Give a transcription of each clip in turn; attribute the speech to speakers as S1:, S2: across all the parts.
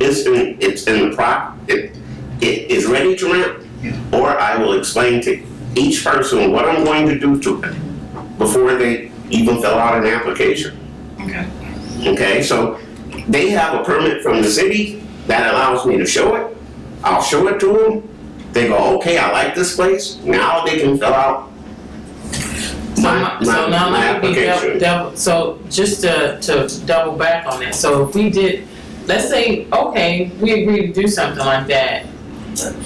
S1: it's in, it's in the prop, it, it is ready to rent. Or I will explain to each person what I'm going to do to them before they even fill out an application.
S2: Okay.
S1: Okay, so they have a permit from the city that allows me to show it. I'll show it to them. They go, okay, I like this place. Now they can fill out
S2: So
S1: My-
S2: my,
S1: my-
S2: so now
S1: my
S2: let me be
S1: application.
S2: double, double, so just to, to double back on that, so if we did, let's say, okay, we agree to do something like that.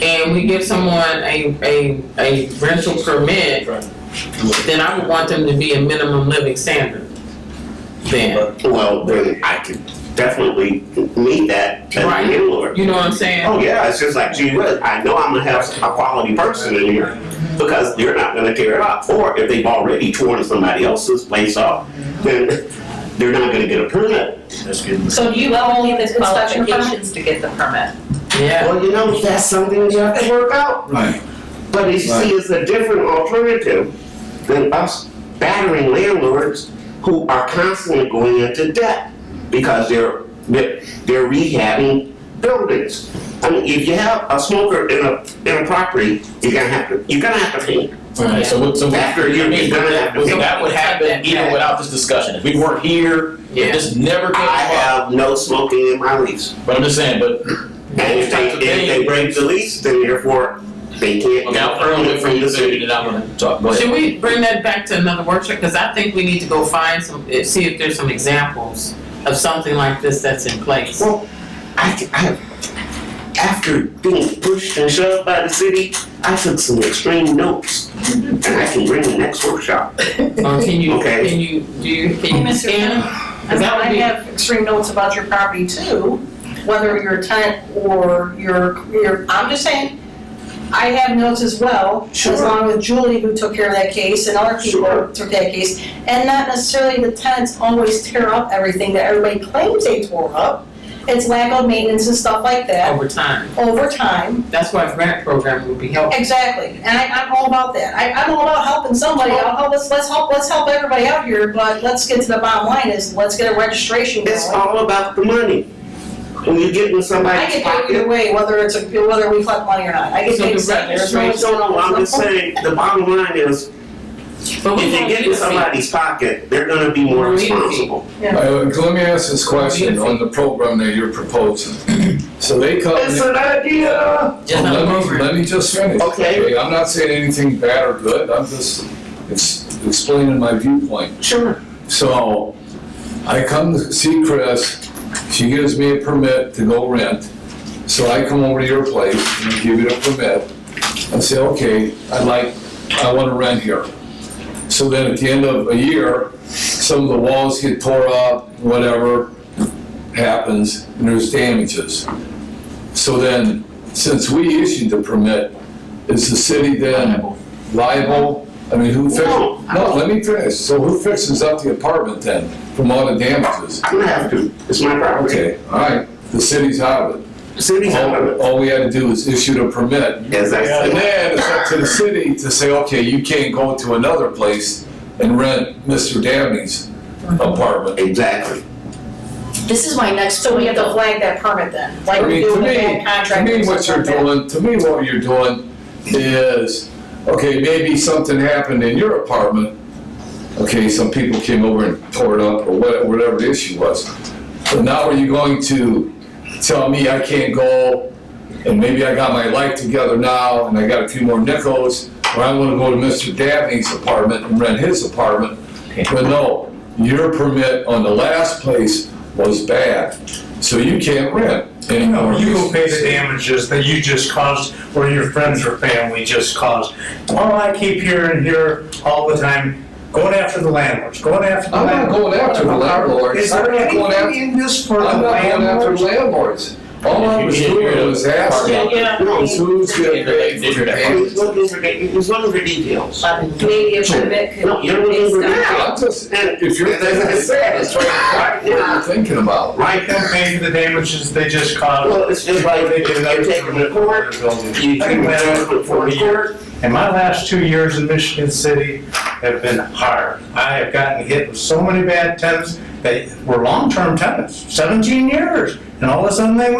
S2: And we give someone a, a, a rental permit, then I would want them to be a minimum living standard. Then,
S1: Well, then I could definitely meet that as
S2: Right.
S1: a landlord.
S2: you know what I'm saying?
S1: Oh yeah, it's just like, gee, whiz, I know I'm gonna have a quality person in here because they're not gonna tear it up. Or if they've already torn somebody else's place up, then they're not gonna get a permit.
S3: That's good.
S4: So you
S5: Well,
S4: only need the
S5: inspection permit?
S4: qualifications to get the permit.
S2: Yeah,
S1: Well, you know, that's something you have to work out.
S3: Right.
S1: But you see, it's a different alternative than us battering landlords who are constantly going into debt because they're, they're they're rehabbing buildings. I mean, if you have a smoker in a, in a property, you're gonna have to, you're gonna have to pay.
S3: Right, so what, so what,
S1: After you-
S3: I mean,
S1: you're gonna have to-
S3: so that would happen even without this discussion, if we weren't here,
S2: Yeah.
S3: if this never came
S1: I
S3: up,
S1: have no smoking in my lease.
S3: but I'm just saying, but.
S1: And if they, if they break the lease, then therefore, they can't
S3: Okay,
S1: get
S3: I'll earn
S1: permit
S3: it for
S1: from
S3: you,
S1: the
S3: so you
S1: city.
S3: did not wanna talk, go ahead.
S2: should we bring that back to another workshop, cause I think we need to go find some, eh, see if there's some examples of something like this that's in place.
S1: Well, I, I, after being pushed and shoved by the city, I took some extreme notes, and I can bring the next workshop.
S2: Or can you,
S1: Okay.
S2: can you, do you,
S5: Hey,
S2: can you
S5: Mr.
S2: scan them?
S5: And
S2: Is
S5: now
S2: that
S5: I
S2: what we-
S5: have extreme notes about your property too, whether you're a tenant or you're, you're, I'm just saying, I have notes as well,
S1: Sure.
S5: as long with Julie who took care of that case and other people
S1: Sure.
S5: who took that case. And not necessarily the tenants always tear up everything that everybody claims they tore up. It's lack of maintenance and stuff like that
S2: over time?
S5: over time.
S2: That's why a grant program would be helpful.
S5: Exactly, and I, I'm all about that, I, I'm all about helping somebody, I'll help, let's, let's help, let's help everybody out here, but let's get to the bottom line is, let's get a registration going.
S1: It's all about the money. When you get in
S5: I
S1: somebody's
S5: get paid either
S1: pocket.
S5: way, whether it's, a whether we collect money or not, I get
S2: So
S5: paid
S2: the
S5: something, there's no,
S2: registration-
S1: No,
S5: no,
S1: no, I'm just saying, the bottom line is,
S2: But
S1: if
S2: we
S1: you
S2: don't need
S1: get
S2: to
S1: in
S2: see.
S1: somebody's pocket, they're gonna be more
S2: Really?
S1: responsible.
S6: Uh, Let me ask this question on the program that you're proposing. So they come,
S1: It's
S6: let
S1: an idea.
S2: Just not a
S6: me,
S2: program.
S6: let me just finish.
S1: Okay.
S6: I'm not saying anything bad or good, I'm just ex- explaining my viewpoint.
S1: Sure.
S6: So I come to see Chris, she gives me a permit to go rent. So I come over to your place and I give you the permit. I say, okay, I like, I wanna rent here. So then at the end of a year, some of the walls get tore up, whatever happens, and there's damages. So then, since we issued the permit, is the city then liable? I mean, who fixes?
S1: No.
S6: No, let me finish. So who fixes up the apartment then from all the damages?
S1: I'm gonna have to, it's my property.
S6: Okay, all right, the city's out of it.
S1: City's out of
S6: All,
S1: it,
S6: all we had to do was issue the permit.
S1: as I
S6: And
S1: said.
S6: then it's up to the city to say, okay, you can't go to another place and rent Mr. Dabney's apartment.
S1: Exactly.
S5: This is my next. So we have to flag that permit then, like
S6: I
S5: we
S6: mean,
S5: do
S6: to
S5: with
S6: me,
S5: that
S6: to
S5: contract.
S6: me, what
S5: or
S6: you're
S5: something like that.
S6: doing, to me, what you're doing is, okay, maybe something happened in your apartment. Okay, some people came over and tore it up or what- whatever the issue was. But now are you going to tell me I can't go and maybe I got my life together now and I got a few more nickels, or I'm gonna go to Mr. Dabney's apartment and rent his apartment? But no, your permit on the last place was bad, so you can't rent anymore.
S7: No, you will pay the damages that you just caused or your friends or family just caused. All I keep hearing here all the time, going after the landlords, going after the
S6: I'm not
S7: landlords.
S6: going after the landlords.
S7: Is there
S6: I'm not going
S7: anything
S6: after,
S7: in this for the
S6: I'm not going after
S7: landlords?
S6: landlords. All I was doing was asking,
S4: Yeah.
S6: was who's gonna pay for
S1: He's
S6: the
S1: looking for, he's looking for details.
S4: Maybe a permit could.
S1: No, you're looking for
S4: It's
S1: now.
S6: I'm just,
S1: And
S6: if you're thinking of that, it's trying to find what you're thinking about.
S7: Right, they'll pay for the damages they just caused.
S1: Well, it's just like
S7: They did
S1: you're
S7: another
S1: taking the court, you
S7: building.
S1: take the court for the court.
S7: And my last two years in Michigan City have been hard. I have gotten hit with so many bad tenants that were long-term tenants, 17 years, and all of a sudden they went